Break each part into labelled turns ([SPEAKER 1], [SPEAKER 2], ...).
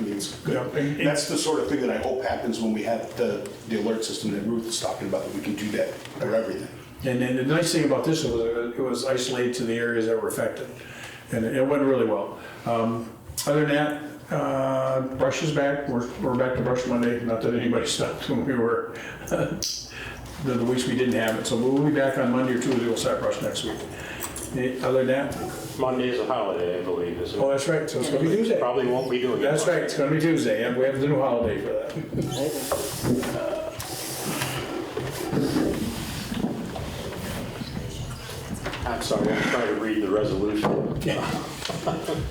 [SPEAKER 1] it's, that's the sort of thing that I hope happens when we have the, the alert system that Ruth is talking about, that we can do that for everything.
[SPEAKER 2] And then the nice thing about this was uh, it was isolated to the areas that were affected, and it went really well. Um, Other than that, uh, brush is back, we're, we're back to brush Monday, not that anybody stopped when we were, the the weeks we didn't have it, so we'll be back on Monday or Tuesday, we'll start brush next week. Eh, Other than that,
[SPEAKER 3] Monday is a holiday, I believe, isn't
[SPEAKER 2] oh,
[SPEAKER 3] it?
[SPEAKER 2] that's right, so it's gonna be Tuesday.
[SPEAKER 3] Probably won't be doing it.
[SPEAKER 2] That's right, it's gonna be Tuesday, and we have the new holiday for that.
[SPEAKER 3] I'm sorry, I'm trying to read the resolution.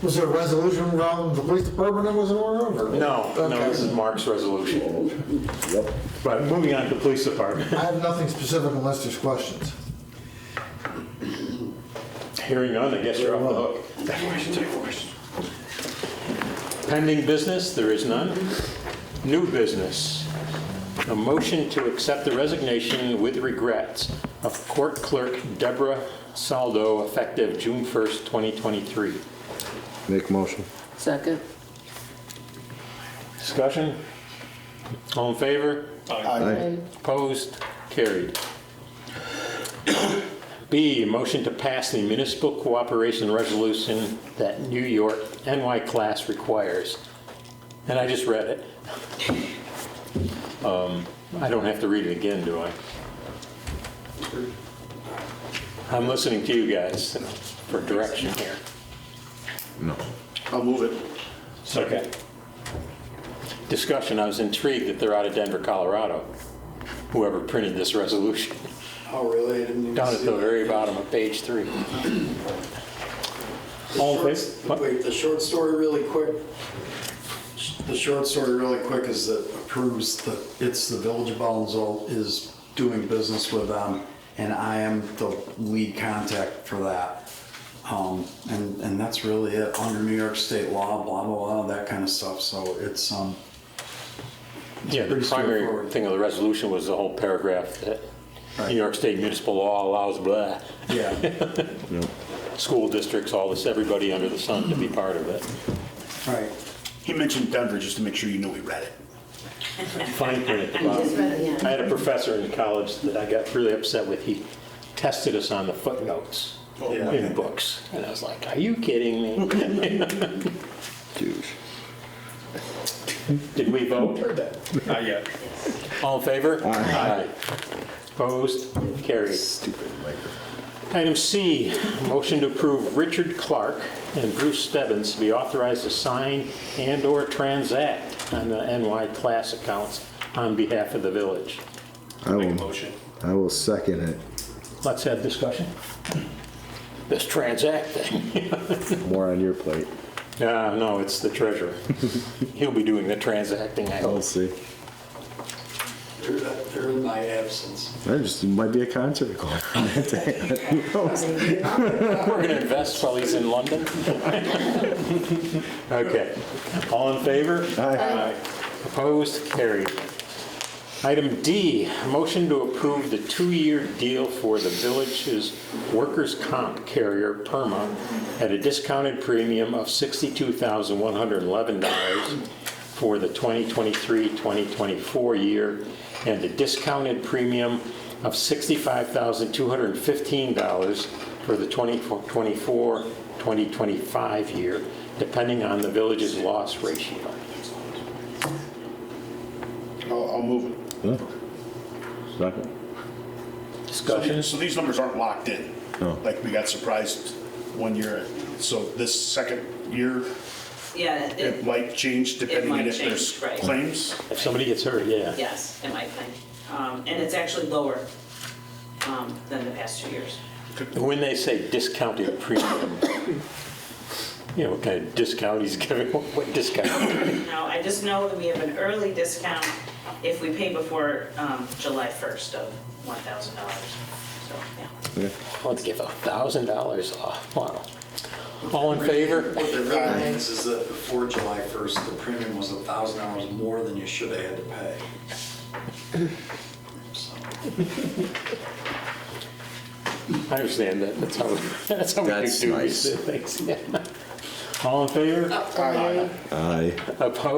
[SPEAKER 4] Was there a resolution around the police department that was aware of? or-
[SPEAKER 3] No, no,
[SPEAKER 4] Okay.
[SPEAKER 3] this is Mark's resolution. But moving on to the police department.
[SPEAKER 4] I have nothing specific unless there's questions.
[SPEAKER 3] Hearing none, I guess you're off the hook. Pending business, there is none. New business, a motion to accept the resignation with regrets of Court Clerk Deborah Saldo effective June 1st, 2023.
[SPEAKER 5] Make motion.
[SPEAKER 6] Second.
[SPEAKER 3] Discussion? All in favor?
[SPEAKER 6] Aye.
[SPEAKER 3] Opposed? Carried. B, motion to pass the municipal cooperation resolution that New York NY class requires. And I just read it. Um, I don't have to read it again, do I? I'm listening to you guys for direction here.
[SPEAKER 1] I'll move it.
[SPEAKER 3] Second. Discussion, I was intrigued that they're out of Denver, Colorado, whoever printed this resolution.
[SPEAKER 7] Oh, really? I didn't even
[SPEAKER 3] Down at
[SPEAKER 7] see
[SPEAKER 3] the
[SPEAKER 7] that.
[SPEAKER 3] very bottom of page three.
[SPEAKER 7] The
[SPEAKER 3] All in
[SPEAKER 7] short-
[SPEAKER 3] favor? What?
[SPEAKER 7] Wait, the short story really quick, the short story really quick is that approves that it's the Village of Belleville is doing business with them, and I am the lead contact for that. Um, and, and that's really it, under New York state law, blah, blah, blah, that kind of stuff, so it's, um,
[SPEAKER 3] Yeah, the
[SPEAKER 7] pretty
[SPEAKER 3] primary
[SPEAKER 7] straightforward.
[SPEAKER 3] thing of the resolution was the whole paragraph that
[SPEAKER 7] Right.
[SPEAKER 3] New York State municipal law allows blah,
[SPEAKER 7] yeah.
[SPEAKER 3] school districts, all this, everybody under the sun to be part of it.
[SPEAKER 7] Right.
[SPEAKER 1] He mentioned Denver, just to make sure you know he read it.
[SPEAKER 3] Fine print at the
[SPEAKER 6] Just
[SPEAKER 3] bottom.
[SPEAKER 6] read it, yeah.
[SPEAKER 3] I had a professor in college that I got really upset with. He tested us on the footnotes in books. And I was like, are you kidding me?
[SPEAKER 5] Douche.
[SPEAKER 3] Did we vote?
[SPEAKER 2] Not yet.
[SPEAKER 3] All in favor? Aye. Opposed? Carried. Stupid Item C, motion to approve Richard Clark and Bruce Stebbins to be authorized to sign and/or transact on the NY class accounts on behalf of the village.
[SPEAKER 5] I will,
[SPEAKER 1] motion.
[SPEAKER 5] I will second it.
[SPEAKER 3] Let's have discussion. This transact thing.
[SPEAKER 5] More on your plate.
[SPEAKER 3] Uh, No, it's the treasurer. He'll be doing the transacting, I
[SPEAKER 5] I'll
[SPEAKER 3] hope.
[SPEAKER 5] see.
[SPEAKER 7] They're, they're in my absence.
[SPEAKER 5] That just might be a concert going on that day. Who knows?
[SPEAKER 3] We're going to invest while he's in London. Okay. All in favor?
[SPEAKER 5] Aye.
[SPEAKER 3] Opposed? Carried. Item D, motion to approve the two-year deal for the village's workers' comp carrier, PERMA, at a discounted premium of $62,111 for the 2023-2024 year, and a discounted premium of $65,215 for the 2024-2025 year, depending on the village's loss ratio.
[SPEAKER 1] I'll, I'll move it.
[SPEAKER 5] Yeah. Second.
[SPEAKER 1] So
[SPEAKER 3] Discussion?
[SPEAKER 1] these- So these numbers aren't locked in.
[SPEAKER 5] No.
[SPEAKER 1] Like, we got surprised one year, so this second year,
[SPEAKER 8] Yeah,
[SPEAKER 1] it
[SPEAKER 8] it,
[SPEAKER 1] might change depending on
[SPEAKER 8] might
[SPEAKER 1] if there's
[SPEAKER 8] change, right.
[SPEAKER 1] claims.
[SPEAKER 3] If somebody gets hurt, yeah.
[SPEAKER 8] yes, in my opinion. Um, and it's actually lower, um, than the past two years.
[SPEAKER 3] When they say discounted premium, you know, what kind of discount he's giving, what discount?
[SPEAKER 8] Now, I just know that we have an early discount if we pay before, um, July first of one thousand dollars. So, yeah.
[SPEAKER 3] Let's give a thousand dollars off, wow. All in favor? Uh,
[SPEAKER 7] What that really means is that before July 1st, the premium was $1,000 more than you should have had to pay. So,
[SPEAKER 3] I understand that, that's how, that's how we
[SPEAKER 5] That's
[SPEAKER 3] do
[SPEAKER 5] nice.
[SPEAKER 3] these things. yeah. All in favor?
[SPEAKER 5] Aye.
[SPEAKER 3] Opposed?